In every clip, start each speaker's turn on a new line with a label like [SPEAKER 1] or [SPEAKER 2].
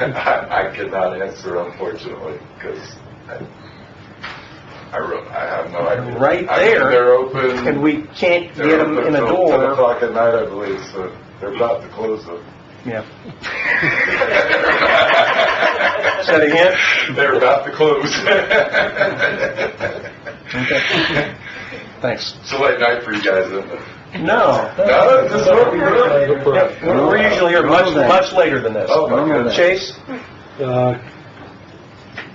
[SPEAKER 1] I I cannot answer unfortunately, because I really, I have no idea.
[SPEAKER 2] Right
[SPEAKER 1] I mean,
[SPEAKER 2] there.
[SPEAKER 1] They're open.
[SPEAKER 2] And we can't
[SPEAKER 1] they're
[SPEAKER 2] get them
[SPEAKER 1] open
[SPEAKER 2] in a
[SPEAKER 1] till Ten
[SPEAKER 2] door.
[SPEAKER 1] o'clock at night, I believe, so they're about to close them.
[SPEAKER 2] Yeah. Is that a hint?
[SPEAKER 1] They're about to close.
[SPEAKER 2] Okay. Thanks.
[SPEAKER 1] It's a late night for you guys, isn't it?
[SPEAKER 2] No.
[SPEAKER 1] No, this is what we
[SPEAKER 2] Yeah, We're we're usually here much, much later than this.
[SPEAKER 1] Oh, my goodness.
[SPEAKER 2] Chase?
[SPEAKER 3] Uh,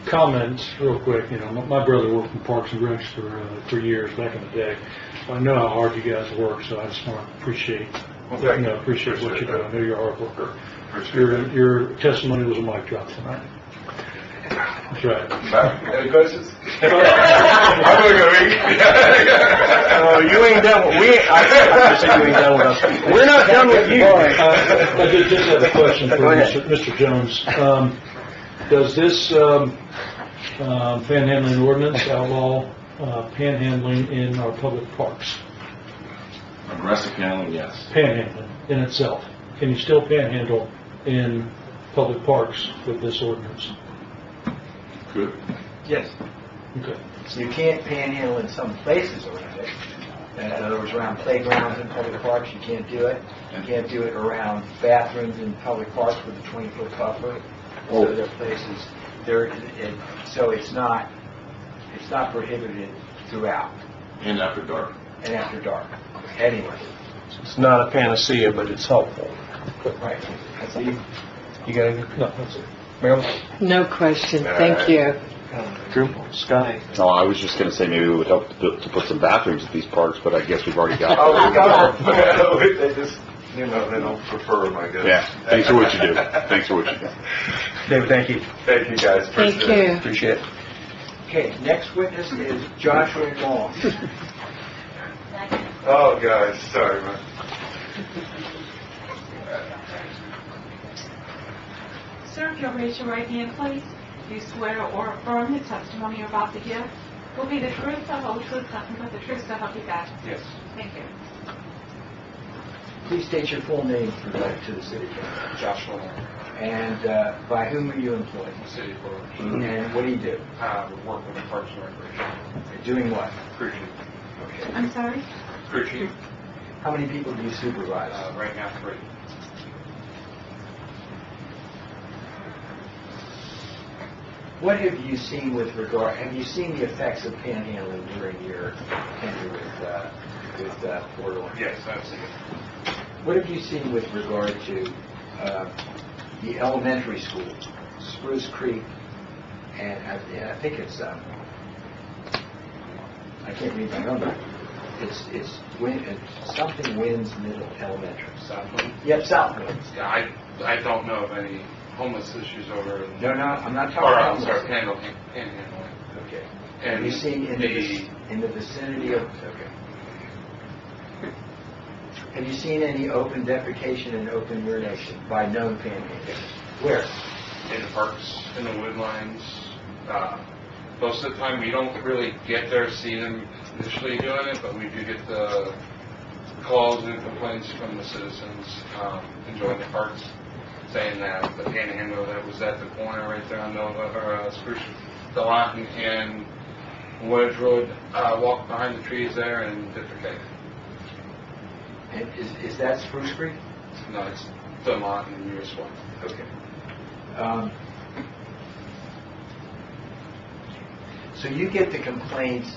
[SPEAKER 3] Comments, real quick, you know, my- my brother worked in Parks and Recs for, uh, for years back in the day. I know how hard you guys work, so I just want to appreciate,
[SPEAKER 1] Well,
[SPEAKER 3] you
[SPEAKER 1] thank
[SPEAKER 3] know, appreciate what
[SPEAKER 1] Appreciate
[SPEAKER 3] you do.
[SPEAKER 1] that.
[SPEAKER 3] I know you're a hard worker.
[SPEAKER 1] Appreciate
[SPEAKER 3] Your, your testimony was a mic drop tonight. That's right.
[SPEAKER 1] it. Any questions? I'm going
[SPEAKER 2] Oh,
[SPEAKER 1] to
[SPEAKER 2] you ain't done, with- we, ain't- I can't say you ain't done with us. We're not done with you.
[SPEAKER 3] Uh, I did just have a question for
[SPEAKER 2] Go ahead.
[SPEAKER 3] Mr. Mr. Jones. Um, Does this um, um, panhandling ordinance outlaw uh, panhandling in our public parks?
[SPEAKER 4] Aggressive handling, yes.
[SPEAKER 3] Panhandling in itself? Can you still panhandle in public parks with this ordinance?
[SPEAKER 4] Good.
[SPEAKER 5] Yes,
[SPEAKER 3] Okay.
[SPEAKER 5] you can't panhandle in some places around it. In other words, around playgrounds in public parks, you can't do it. You can't do it around bathrooms in public parks with a 20-foot buffer. So there are places, there, it- so it's not, it's not prohibited throughout
[SPEAKER 4] And after dark.
[SPEAKER 5] and after dark, anyway.
[SPEAKER 2] It's not a panacea, but it's helpful.
[SPEAKER 5] Right. That's the-
[SPEAKER 2] You got anything?
[SPEAKER 3] No, that's it.
[SPEAKER 2] Marilyn?
[SPEAKER 6] No question,
[SPEAKER 7] Uh,
[SPEAKER 6] thank you.
[SPEAKER 2] Drew? Scott?
[SPEAKER 8] No, I was just gonna say maybe it would help to to put some bathrooms at these parks, but I guess we've already got.
[SPEAKER 1] Oh, we got them. They just, you know, they don't prefer them, I guess.
[SPEAKER 8] Yeah, thanks for what you do. Thanks for what you do.
[SPEAKER 2] David, thank you.
[SPEAKER 1] Thank you, guys.
[SPEAKER 6] Thank
[SPEAKER 1] Appreciate it.
[SPEAKER 6] you.
[SPEAKER 2] Appreciate it.
[SPEAKER 5] Okay, next witness is Joshua Long.
[SPEAKER 1] Oh, guys, sorry, man.
[SPEAKER 9] Sir, if you'll raise your right hand, please. Do you swear or affirm the testimony you're about to give will be the truth, the whole truth, nothing but the truth, so help you God?
[SPEAKER 1] Yes.
[SPEAKER 9] Thank you.
[SPEAKER 5] Please state your full name for the- to the city. Joshua And uh, by whom are you employed?
[SPEAKER 7] city board,
[SPEAKER 5] And what do you do?
[SPEAKER 7] uh, would work with the Parks and Recreation.
[SPEAKER 5] Doing what?
[SPEAKER 7] Crew chief.
[SPEAKER 5] Okay.
[SPEAKER 9] I'm sorry?
[SPEAKER 7] Crew chief,
[SPEAKER 5] How many people do you
[SPEAKER 7] uh,
[SPEAKER 5] supervise?
[SPEAKER 7] right now, three.
[SPEAKER 5] What have you seen with regard, have you seen the effects of panhandling during your tenure with, uh, with uh, Port Orange?
[SPEAKER 7] Yes, I've seen it.
[SPEAKER 5] What have you seen with regard to uh, the elementary school, Spruce Creek, and I- and I think it's, um, I can't read my number, it's, it's Win- it's something Wynn's Middle Elementary.
[SPEAKER 7] Southland.
[SPEAKER 5] Yep, South Winds.
[SPEAKER 7] Yeah, I, I don't know of any homeless issues over in...
[SPEAKER 5] No, no, I'm not talking
[SPEAKER 7] Or,
[SPEAKER 5] about...
[SPEAKER 7] I'm sorry, panhandling, panhandling.
[SPEAKER 5] Okay. Have
[SPEAKER 7] And
[SPEAKER 5] you seen in the,
[SPEAKER 7] the,
[SPEAKER 5] vic- in the vicinity of, okay. Have you seen any open defecation and open urination by known panhandlers? Where?
[SPEAKER 7] in the parks, in the woodlines, uh, most of the time, we don't really get there, see them initially doing it, but we do get the calls and complaints from the citizens, um, enjoying the parks, saying that the panhandle that was at the corner right there on Nova, or, uh, Spruce, the lot and Woodridge Road, uh, walked behind the trees there and did their cake.
[SPEAKER 5] And is, is that Spruce Creek?
[SPEAKER 7] No, it's the lot and yours one.
[SPEAKER 5] Okay. Um, So you get the complaints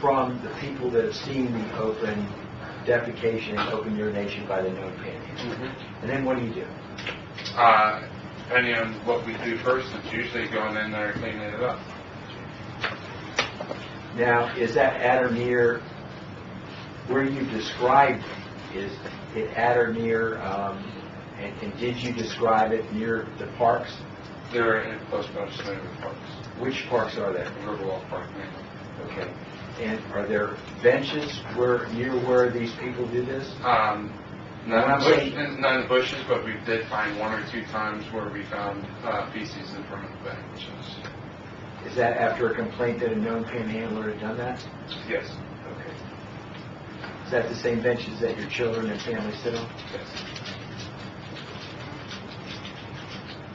[SPEAKER 5] from the people that have seen the open defecation and open urination by the known panhandlers? And then what do you do?
[SPEAKER 7] Uh, depending on what we do first, it's usually going in there and cleaning it up.
[SPEAKER 5] Now, is that at or near, where you described it, is it at or near, um, and and did you describe it near the parks?
[SPEAKER 7] They're in close proximity to the parks,
[SPEAKER 5] Which parks are there?
[SPEAKER 7] Riverwalk Park, mainly.
[SPEAKER 5] Okay. And are there benches where, near where these people do this?
[SPEAKER 7] Um, none in
[SPEAKER 5] Not
[SPEAKER 7] the bush,
[SPEAKER 5] safe.
[SPEAKER 7] none in the bushes, but we did find one or two times where we found uh, feces in front of the benches.
[SPEAKER 5] Is that after a complaint that a known panhandler had done that?
[SPEAKER 7] Yes,
[SPEAKER 5] Okay. Is that the same benches that your children and family sit on?
[SPEAKER 7] yes.